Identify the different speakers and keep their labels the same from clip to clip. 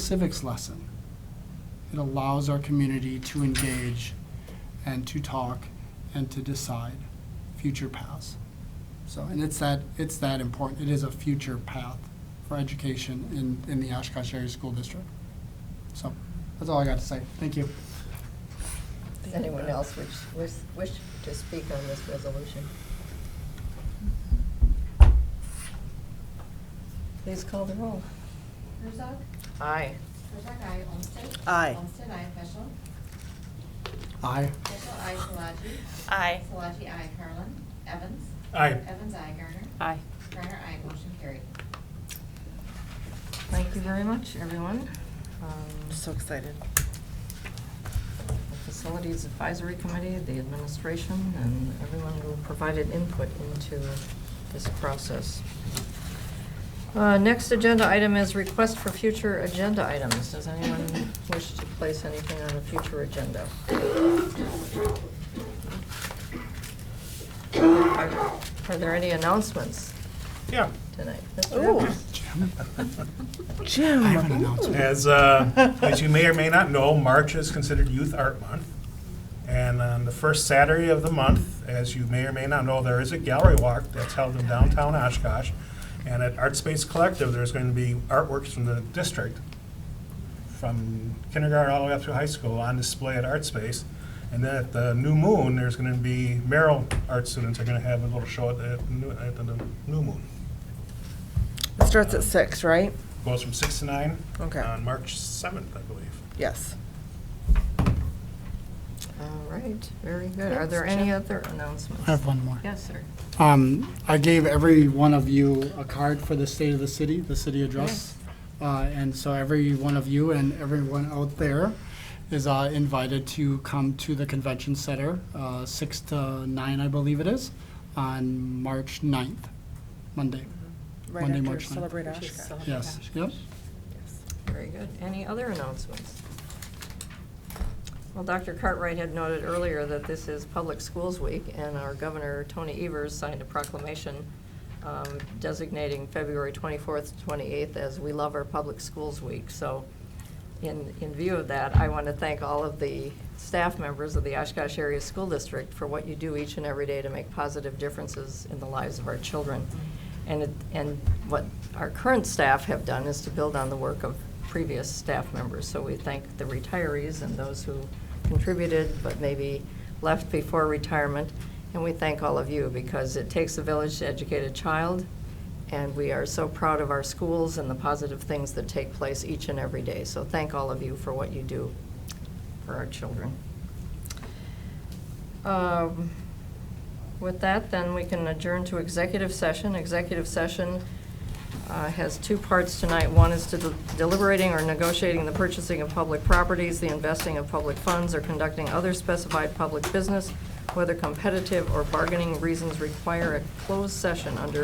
Speaker 1: civics lesson. It allows our community to engage and to talk and to decide future paths. So, and it's that, it's that important. It is a future path for education in, in the Oshkosh Area School District. So, that's all I got to say. Thank you.
Speaker 2: Does anyone else wish, wish, wish to speak on this resolution? Please call the roll.
Speaker 3: Herzog?
Speaker 2: Aye.
Speaker 3: Herzog, aye. Olmstead?
Speaker 2: Aye.
Speaker 3: Olmstead, aye. Peschel?
Speaker 1: Aye.
Speaker 3: Peschel, aye. Solaji?
Speaker 4: Aye.
Speaker 3: Solaji, aye. Carlin? Evans?
Speaker 5: Aye.
Speaker 3: Evans, aye. Garner?
Speaker 4: Aye.
Speaker 3: Garner, aye. Motion carried.
Speaker 2: Thank you very much, everyone. Um,
Speaker 4: So excited.
Speaker 2: the Facilities Advisory Committee, the administration, and everyone who provided input into this process. Uh, Next agenda item is request for future agenda items. Does anyone wish to place anything on the future agenda? Are are there any announcements
Speaker 5: Yeah,
Speaker 2: tonight? Mr. Evans?
Speaker 1: I have an announcement.
Speaker 5: as, uh, as you may or may not know, March is considered Youth Art Month. And on the first Saturday of the month, as you may or may not know, there is a gallery walk that's held in downtown Oshkosh. And at Art Space Collective, there's going to be artworks from the district, from kindergarten all the way up through high school, on display at Art Space. And then at the New Moon, there's going to be Merrill art students are going to have a little show at the, new- at the New Moon.
Speaker 6: It starts at six, right?
Speaker 5: Goes from six to nine
Speaker 6: Okay.
Speaker 5: on March 7th, I believe.
Speaker 6: Yes.
Speaker 2: All right, very good. Are there any other announcements?
Speaker 1: I have one more.
Speaker 2: Yes, sir.
Speaker 1: Um, I gave every one of you a card for the state of the city, the city address. Uh, and so every one of you and everyone out there is uh, invited to come to the convention center, uh, six to nine, I believe it is, on March 9th, Monday.
Speaker 6: Right
Speaker 1: Monday,
Speaker 6: after oh,
Speaker 1: March ninth.
Speaker 6: Celebrate Oshkosh.
Speaker 1: Yes, yep.
Speaker 2: Very good. Any other announcements? Well, Dr. Cartwright had noted earlier that this is Public Schools Week, and our Governor, Tony Evers, signed a proclamation um, designating February 24th, to 28th as We Love Our Public Schools Week. So in, in view of that, I want to thank all of the staff members of the Oshkosh Area School District for what you do each and every day to make positive differences in the lives of our children. And, it- and what our current staff have done is to build on the work of previous staff members. So we thank the retirees and those who contributed but maybe left before retirement. And we thank all of you because it takes a village to educate a child, and we are so proud of our schools and the positive things that take place each and every day. So thank all of you for what you do for our children. Um, With that, then, we can adjourn to executive session. Executive session uh, has two parts tonight. One is to deliberating or negotiating the purchasing of public properties, the investing of public funds, or conducting other specified public business, whether competitive or bargaining reasons require a closed session under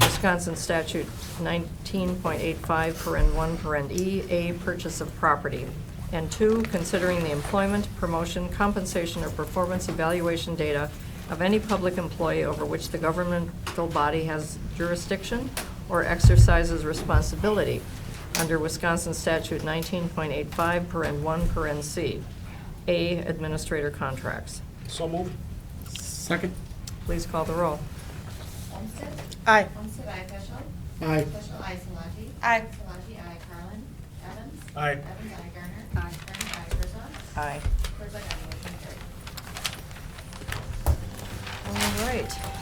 Speaker 2: Wisconsin statute 19.85, paren 1, paren E, A, purchase of property. And two, considering the employment, promotion, compensation, or performance evaluation data of any public employee over which the governmental body has jurisdiction or exercises responsibility under Wisconsin Statute 19.85, paren 1, paren C. A, administrator contracts.
Speaker 5: So moved.
Speaker 1: Second?
Speaker 2: Please call the roll.
Speaker 3: Olmstead?
Speaker 6: Aye.
Speaker 3: Olmstead, aye. Peschel?
Speaker 1: Aye.
Speaker 3: Peschel, aye. Solaji?
Speaker 4: Aye.
Speaker 3: Solaji, aye. Carlin? Evans?
Speaker 5: Aye.
Speaker 3: Evans, aye. Garner? Aye. Garner, aye. Herzog?
Speaker 2: Aye.
Speaker 3: Herzog, aye. Motion carried.
Speaker 2: All right.